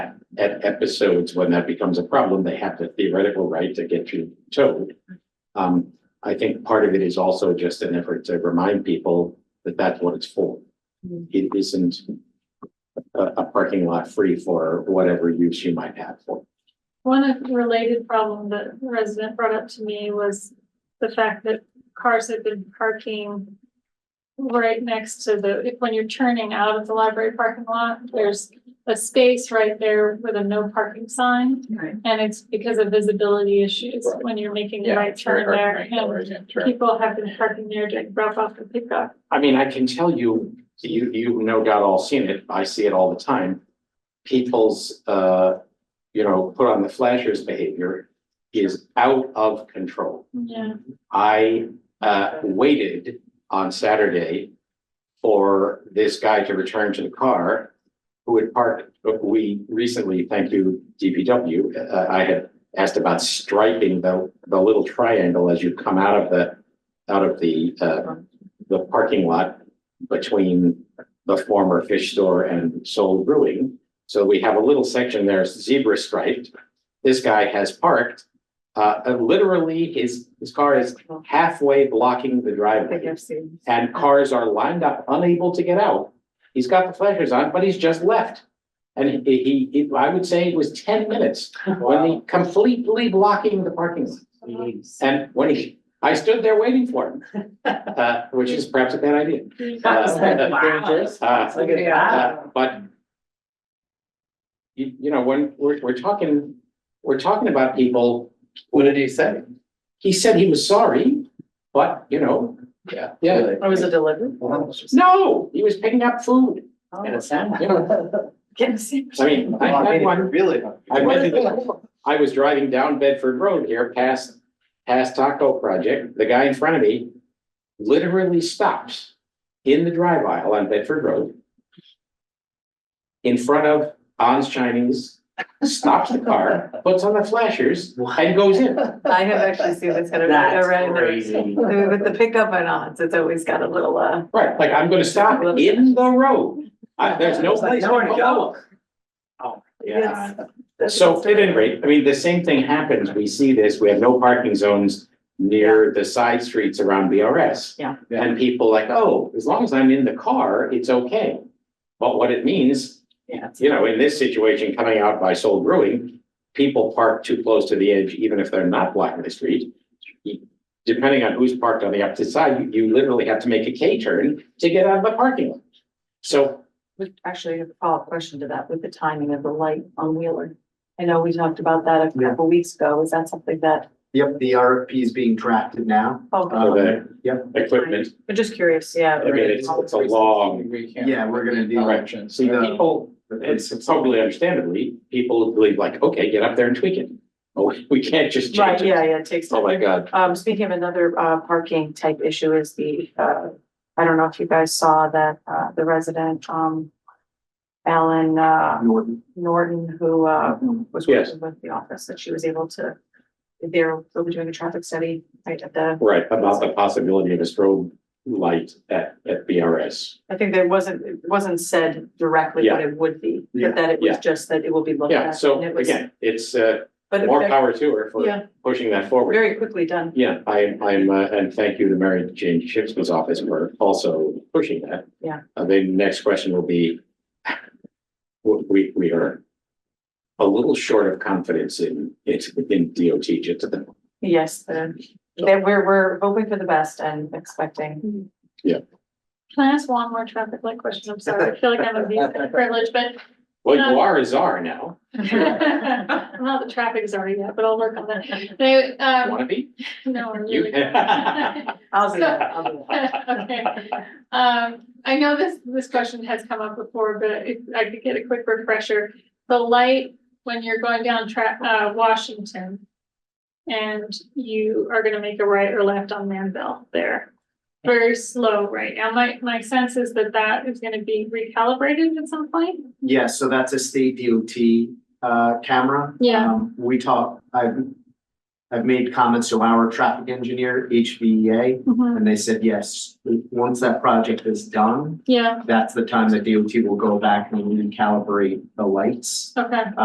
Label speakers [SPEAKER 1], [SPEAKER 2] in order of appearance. [SPEAKER 1] at episodes when that becomes a problem, they have the theoretical right to get you towed. Um, I think part of it is also just an effort to remind people that that's what it's for.
[SPEAKER 2] Mm.
[SPEAKER 1] It isn't a, a parking lot free for whatever use you might have for.
[SPEAKER 3] One related problem that a resident brought up to me was the fact that cars had been parking right next to the, if- when you're turning out of the library parking lot, there's a space right there with a no parking sign.
[SPEAKER 2] Right.
[SPEAKER 3] And it's because of visibility issues
[SPEAKER 1] Right.
[SPEAKER 3] when you're making the right turn there. And people have been parking there during drop off and pickup.
[SPEAKER 1] I mean, I can tell you, you, you've no doubt all seen it, I see it all the time. People's, uh, you know, put on the flashers behavior is out of control.
[SPEAKER 3] Yeah.
[SPEAKER 1] I uh waited on Saturday for this guy to return to the car who had parked, but we recently, thank you, DPW, uh, I had asked about striping the the little triangle as you come out of the out of the uh the parking lot between the former fish store and Soul Brewing. So we have a little section there, zebra striped. This guy has parked uh, uh, literally, his, his car is halfway blocking the
[SPEAKER 2] I think
[SPEAKER 1] driveway.
[SPEAKER 2] I've seen.
[SPEAKER 1] And cars are lined up, unable to get out. He's got the flashers on, but he's just left. And he, he- he, I would say it was ten minutes when he completely blocking the parking lot.
[SPEAKER 3] Uh-huh.
[SPEAKER 2] Jeez.
[SPEAKER 1] And when he, I stood there waiting for him, uh, which is perhaps a bad idea. Uh, uh,
[SPEAKER 2] Look at
[SPEAKER 1] uh,
[SPEAKER 2] that.
[SPEAKER 1] But you, you know, when we're, we're talking, we're talking about people
[SPEAKER 4] What did he say?
[SPEAKER 1] He said he was sorry, but you know,
[SPEAKER 4] Yeah.
[SPEAKER 1] yeah,
[SPEAKER 2] Or was Oh, it delivered?
[SPEAKER 1] no, he was picking up food.
[SPEAKER 2] Oh,
[SPEAKER 4] In a
[SPEAKER 1] You know, I mean, I had one,
[SPEAKER 4] Really?
[SPEAKER 1] I went to- I was driving down Bedford Road here past, past Taco Project. The guy in front of me literally stops in the drive aisle on Bedford Road. In front of On's Chinese, stops the car, puts on the flashers and goes in.
[SPEAKER 2] I have actually seen this kind of.
[SPEAKER 5] That's
[SPEAKER 2] around there.
[SPEAKER 5] crazy.
[SPEAKER 2] With the pickup and odds, it's always got a little, uh,
[SPEAKER 1] Right, like I'm gonna stop in the road. I- There's no place.
[SPEAKER 5] Nowhere to
[SPEAKER 1] go.
[SPEAKER 5] go. Oh, yeah.
[SPEAKER 2] that's-
[SPEAKER 1] So at any rate, I mean, the same thing happens. We see this, we have no parking zones near the side streets around BRS.
[SPEAKER 2] Yeah.
[SPEAKER 4] Yeah.
[SPEAKER 1] And people like, oh, as long as I'm in the car, it's okay. But what it means,
[SPEAKER 2] Yeah.
[SPEAKER 1] you know, in this situation, coming out by Soul Brewing, people park too close to the edge, even if they're not blocking the street. Depending on who's parked on the opposite side, you- you literally have to make a K turn to get out of the parking lot. So
[SPEAKER 2] Would actually have a follow-up question to that with the timing of the light on Wheeler. I know we talked about that a
[SPEAKER 5] Yeah.
[SPEAKER 2] couple weeks ago. Is that something that,
[SPEAKER 5] Yep, the RFP is being drafted now. Um,
[SPEAKER 1] for
[SPEAKER 2] oh,
[SPEAKER 1] the
[SPEAKER 5] Yep.
[SPEAKER 1] equipment,
[SPEAKER 2] I'm just curious, yeah.
[SPEAKER 1] I mean, it's, it's a long
[SPEAKER 4] We can't.
[SPEAKER 5] Yeah, we're gonna do.
[SPEAKER 4] Directions.
[SPEAKER 1] See,
[SPEAKER 5] No.
[SPEAKER 1] people, it's totally understandably, people believe like, okay, get up there and tweak it. Oh, we can't just
[SPEAKER 2] Right,
[SPEAKER 1] change it.
[SPEAKER 2] yeah, yeah, it takes.
[SPEAKER 1] Oh, my God.
[SPEAKER 2] Um, speaking of another, uh, parking type issue is the, uh, I don't know if you guys saw that, uh, the resident, um, Alan, uh,
[SPEAKER 5] Norton.
[SPEAKER 2] Norton, who, uh, was
[SPEAKER 1] Yes.
[SPEAKER 2] working with the office, that she was able to, they're, they'll be doing a traffic study right at the,
[SPEAKER 1] Right, about the possibility of a strobe light at, at BRS.
[SPEAKER 2] I think there wasn't, it wasn't said directly what it would be,
[SPEAKER 5] Yeah.
[SPEAKER 2] but that it was
[SPEAKER 1] Yeah.
[SPEAKER 2] just that it will be looked at.
[SPEAKER 1] Yeah, so
[SPEAKER 2] and it was-
[SPEAKER 1] again, it's, uh,
[SPEAKER 2] But
[SPEAKER 1] more
[SPEAKER 2] it-
[SPEAKER 1] power to her for
[SPEAKER 2] yeah,
[SPEAKER 1] pushing that forward.
[SPEAKER 2] very quickly done.
[SPEAKER 1] Yeah, I, I'm, uh, and thank you to Mary Jane Shipsman's office for also pushing that.
[SPEAKER 2] Yeah.
[SPEAKER 1] Uh, the next question will be, we- we, we are a little short of confidence in, it's in DOT just at the
[SPEAKER 2] Yes, the, that we're, we're hoping for the best and expecting.
[SPEAKER 3] Can I ask one more traffic light question? I'm sorry. I feel like I'm abusing my privilege, but
[SPEAKER 1] Well, you are a czar now.
[SPEAKER 3] Well, the traffic is already out, but I'll work on that. They, um,
[SPEAKER 1] Wanna be?
[SPEAKER 3] no, I'm
[SPEAKER 1] You-
[SPEAKER 3] really. Okay,
[SPEAKER 2] I'll be, I'll be.
[SPEAKER 3] um, I know this, this question has come up before, but if I could get a quick refresher. The light, when you're going down tra- uh, Washington. And you are gonna make a right or left on Manville there. Very slow right now. My, my sense is that that is gonna be recalibrated at some point.
[SPEAKER 5] Yeah, so that's a state DOT uh camera.
[SPEAKER 3] Yeah.
[SPEAKER 5] Um, We talk, I I've made comments to our traffic engineer, HVEA, and they said, yes, once that project is done,
[SPEAKER 3] Yeah,
[SPEAKER 5] that's the time that DOT will go back and recalibrate the lights.
[SPEAKER 3] okay.